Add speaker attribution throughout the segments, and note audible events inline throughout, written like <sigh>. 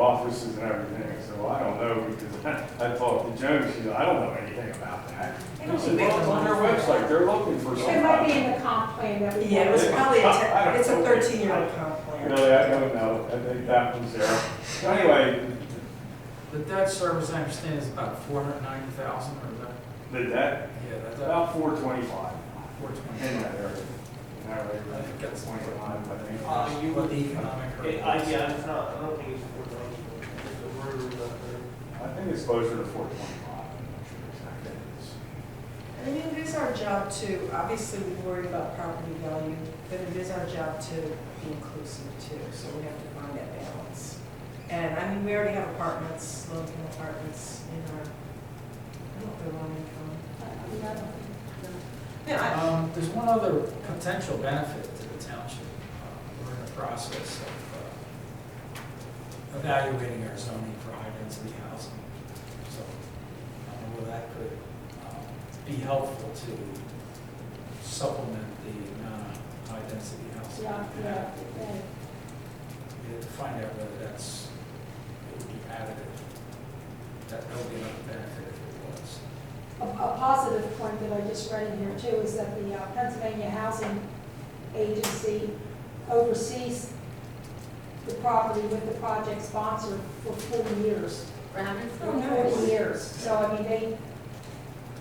Speaker 1: offices and everything, so I don't know, because <laughs> I, I talked to Joan, she, I don't know anything about that.
Speaker 2: They don't
Speaker 1: I said, well, it's on their
Speaker 2: do that.
Speaker 1: website, they're looking for
Speaker 2: It might be
Speaker 1: somebody.
Speaker 2: in the comp plan that we.
Speaker 3: Yeah, it was probably, a ten- it's a
Speaker 1: I don't know.
Speaker 3: thirteen-year-old comp plan.
Speaker 1: Really, I don't know, I think that was there. So anyway,
Speaker 4: The debt service, I understand, is about four hundred ninety thousand, or is that,
Speaker 1: the debt,
Speaker 4: yeah, that's about
Speaker 1: about four twenty-five
Speaker 4: four
Speaker 1: in
Speaker 4: twenty.
Speaker 1: that area. In that area,
Speaker 4: I think that's-
Speaker 1: twenty-five, I think.
Speaker 5: Uh, you
Speaker 4: What
Speaker 5: would,
Speaker 4: the economic
Speaker 5: it,
Speaker 4: hurdle
Speaker 5: I,
Speaker 4: is.
Speaker 5: yeah, it's not, I don't think it's four thousand, it's a word or nothing.
Speaker 1: I think it's closer to four twenty-five, I'm not sure exactly. It's-
Speaker 3: And I mean, it is our job to, obviously, we worry about property value, but it is our job to be inclusive too, so we have to find that balance. And I mean, we already have apartments, low-income apartments in our, I don't know, if they're low-income. Yeah, I-
Speaker 4: Um, there's one other potential benefit to the township. Uh, We're in the process of uh, evaluating our zoning for high-density housing. So, I don't know whether that could um, be helpful to supplement the amount of high-density housing.
Speaker 2: Yeah,
Speaker 4: we have.
Speaker 2: yeah, yeah.
Speaker 4: We have to find out whether that's, it would be additive. That that would be another benefit if it was.
Speaker 2: A, a positive point that I just read in here too is that the uh, Pennsylvania Housing Agency oversees the property with the project sponsor for forty years.
Speaker 6: Oh,
Speaker 2: For forty years, so I mean, they,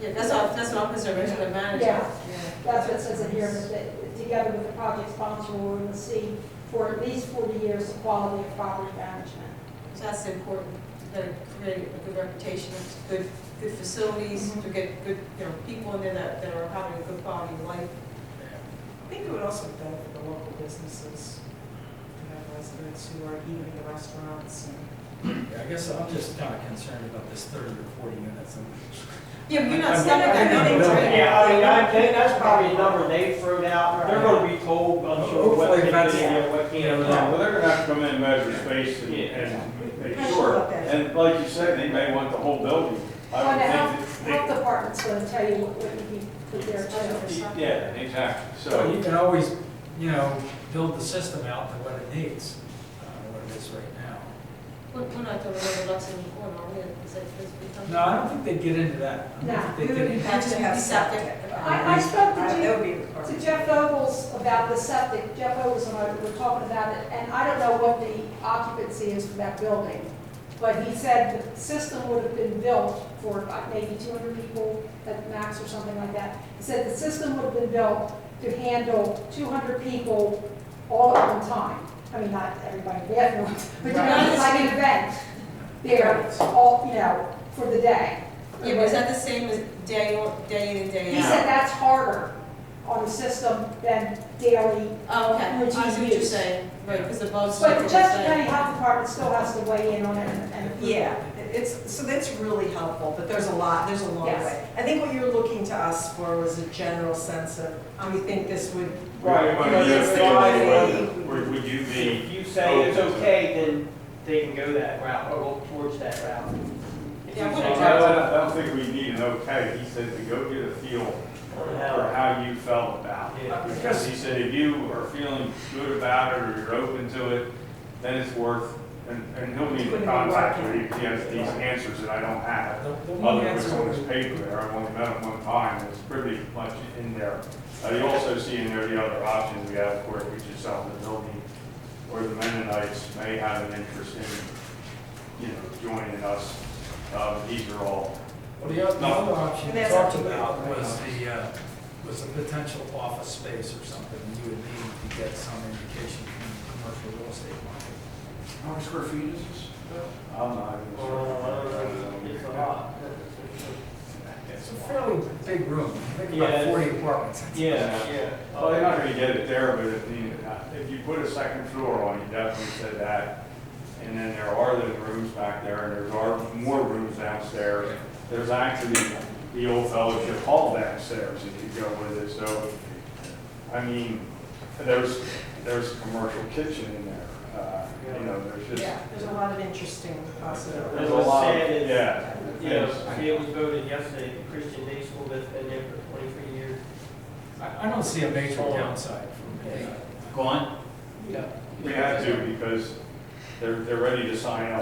Speaker 6: Yeah, that's what, that's what Officer Richard managed.
Speaker 2: yeah,
Speaker 3: yeah.
Speaker 2: that's what it says in here, that they- together with the project sponsor, will oversee for at least forty years the quality of property management.
Speaker 6: So that's important, that it create a good reputation, good, good facilities,
Speaker 2: Mm-hmm.
Speaker 6: to get good, you know, people in there that, that are having a good quality of life.
Speaker 3: I think it would also benefit the local businesses, to have residents who are eating in the restaurants and
Speaker 4: Yeah, I guess I'm just kind of concerned about this thirty or forty units. and-
Speaker 6: Yeah, but you're not
Speaker 4: I'm-
Speaker 6: selling
Speaker 4: I'm-
Speaker 6: that
Speaker 4: I'm-
Speaker 6: building,
Speaker 4: I'm-
Speaker 6: right?
Speaker 5: Yeah, I mean, I think that's probably a number they threw out, they're gonna be told, I'm sure, what
Speaker 4: Hopefully
Speaker 5: they
Speaker 4: that's-
Speaker 5: can and what can't.
Speaker 1: Yeah, well, they're gonna have to come in and measure space and, and make sure. And like you said, they may want the whole building. I
Speaker 2: Well,
Speaker 1: would
Speaker 2: the
Speaker 1: think
Speaker 2: health, health
Speaker 1: that
Speaker 2: department's gonna tell you what what you can put there too.
Speaker 1: they- Yeah, exactly,
Speaker 4: So
Speaker 1: so,
Speaker 4: you can always, you know, build the system out to what it needs, uh, what it is right now.
Speaker 6: We're we're not talking about Lexington corner, are we? Is that supposed to be something?
Speaker 4: No, I don't think they get into that. I
Speaker 2: No,
Speaker 4: don't think they
Speaker 3: we
Speaker 4: get
Speaker 3: would
Speaker 4: into-
Speaker 3: have to have septic.
Speaker 2: I, I spoke to
Speaker 3: Uh,
Speaker 2: Jeff.
Speaker 3: That would be a requirement.
Speaker 2: to Jeff Vogels about the septic, Jeff Vogels and I were talking about it, and I don't know what the occupancy is for that building, but he said the system would have been built for about maybe two hundred people at max or something like that. He said the system would have been built to handle two hundred people all at one time. I mean, not everybody, but everyone, but you know, it's like an event there, all, you know, for the day.
Speaker 6: Yeah, but is that the same as day, or- day in and day
Speaker 2: He
Speaker 6: out?
Speaker 2: said that's harder on the system than daily.
Speaker 6: Oh, okay, I see what you're
Speaker 2: Routine use.
Speaker 6: saying, right, because the bugs.
Speaker 2: But the Chester County Health Department still has to weigh in on it and- and.
Speaker 3: Yeah, it's, so that's really helpful, but there's a lot, there's a long
Speaker 2: Yes.
Speaker 3: way. I think what you were looking to us for was a general sense of, we think this would.
Speaker 1: right,
Speaker 3: you
Speaker 1: but
Speaker 3: know,
Speaker 1: you
Speaker 3: this
Speaker 1: think,
Speaker 3: guy-
Speaker 1: would- would, would you be,
Speaker 5: If you say it's okay, then they can go that route, or go towards that route. If you
Speaker 6: Yeah, I
Speaker 1: I
Speaker 6: wouldn't
Speaker 5: say
Speaker 1: don't,
Speaker 5: no,
Speaker 1: I don't- I don't think we need an okay, he said to go get a feel
Speaker 5: or
Speaker 1: for
Speaker 5: no.
Speaker 1: how you felt about
Speaker 5: Yeah.
Speaker 1: it. Because he said if you are feeling good about it or you're open to it, then it's worth, and, and he'll need to
Speaker 3: Wouldn't be
Speaker 1: contact
Speaker 3: working.
Speaker 1: me if he has these answers that I don't have.
Speaker 4: The the one
Speaker 1: Other was
Speaker 4: answer
Speaker 1: on
Speaker 4: would
Speaker 1: his paper there, I only met him one time, it's pretty much in there. Uh, You also see in there the other options we have, of course, which is sell the building, or the Mennonites may have an interest in, you know, joining us. Uh, These are all,
Speaker 4: Well, the oth- the other option
Speaker 3: And
Speaker 4: you
Speaker 3: that's
Speaker 4: talked
Speaker 3: up to you.
Speaker 4: about was the, uh, was a potential office space or something. You would need to get some indication from the commercial real estate market.
Speaker 7: How many square feet is this?
Speaker 1: I'm not even
Speaker 5: Or, uh,
Speaker 1: sure.
Speaker 5: It's a lot.
Speaker 4: It's a fairly big room. I think
Speaker 5: Yeah,
Speaker 4: about
Speaker 5: it's-
Speaker 4: forty apartments.
Speaker 5: Yeah, yeah.
Speaker 1: Well, they're not gonna get it there, but if you, if you put a second floor on, you definitely said that. And then there are those rooms back there, and there's are more rooms downstairs. There's actually the old fellowship hall downstairs if you go with it, so, I mean, there's, there's a commercial kitchen in there. Uh, You know, there's just,
Speaker 3: Yeah, there's a lot of interesting possibilities.
Speaker 1: there's
Speaker 5: As
Speaker 1: a
Speaker 5: I
Speaker 1: lot,
Speaker 5: said, it's-
Speaker 1: yeah.
Speaker 5: You know, it was voted yesterday, the Christian Day School that's been there for twenty-three years.
Speaker 4: I, I don't see a major downside from it.
Speaker 1: Gone? We have to, because they're, they're ready to sign up.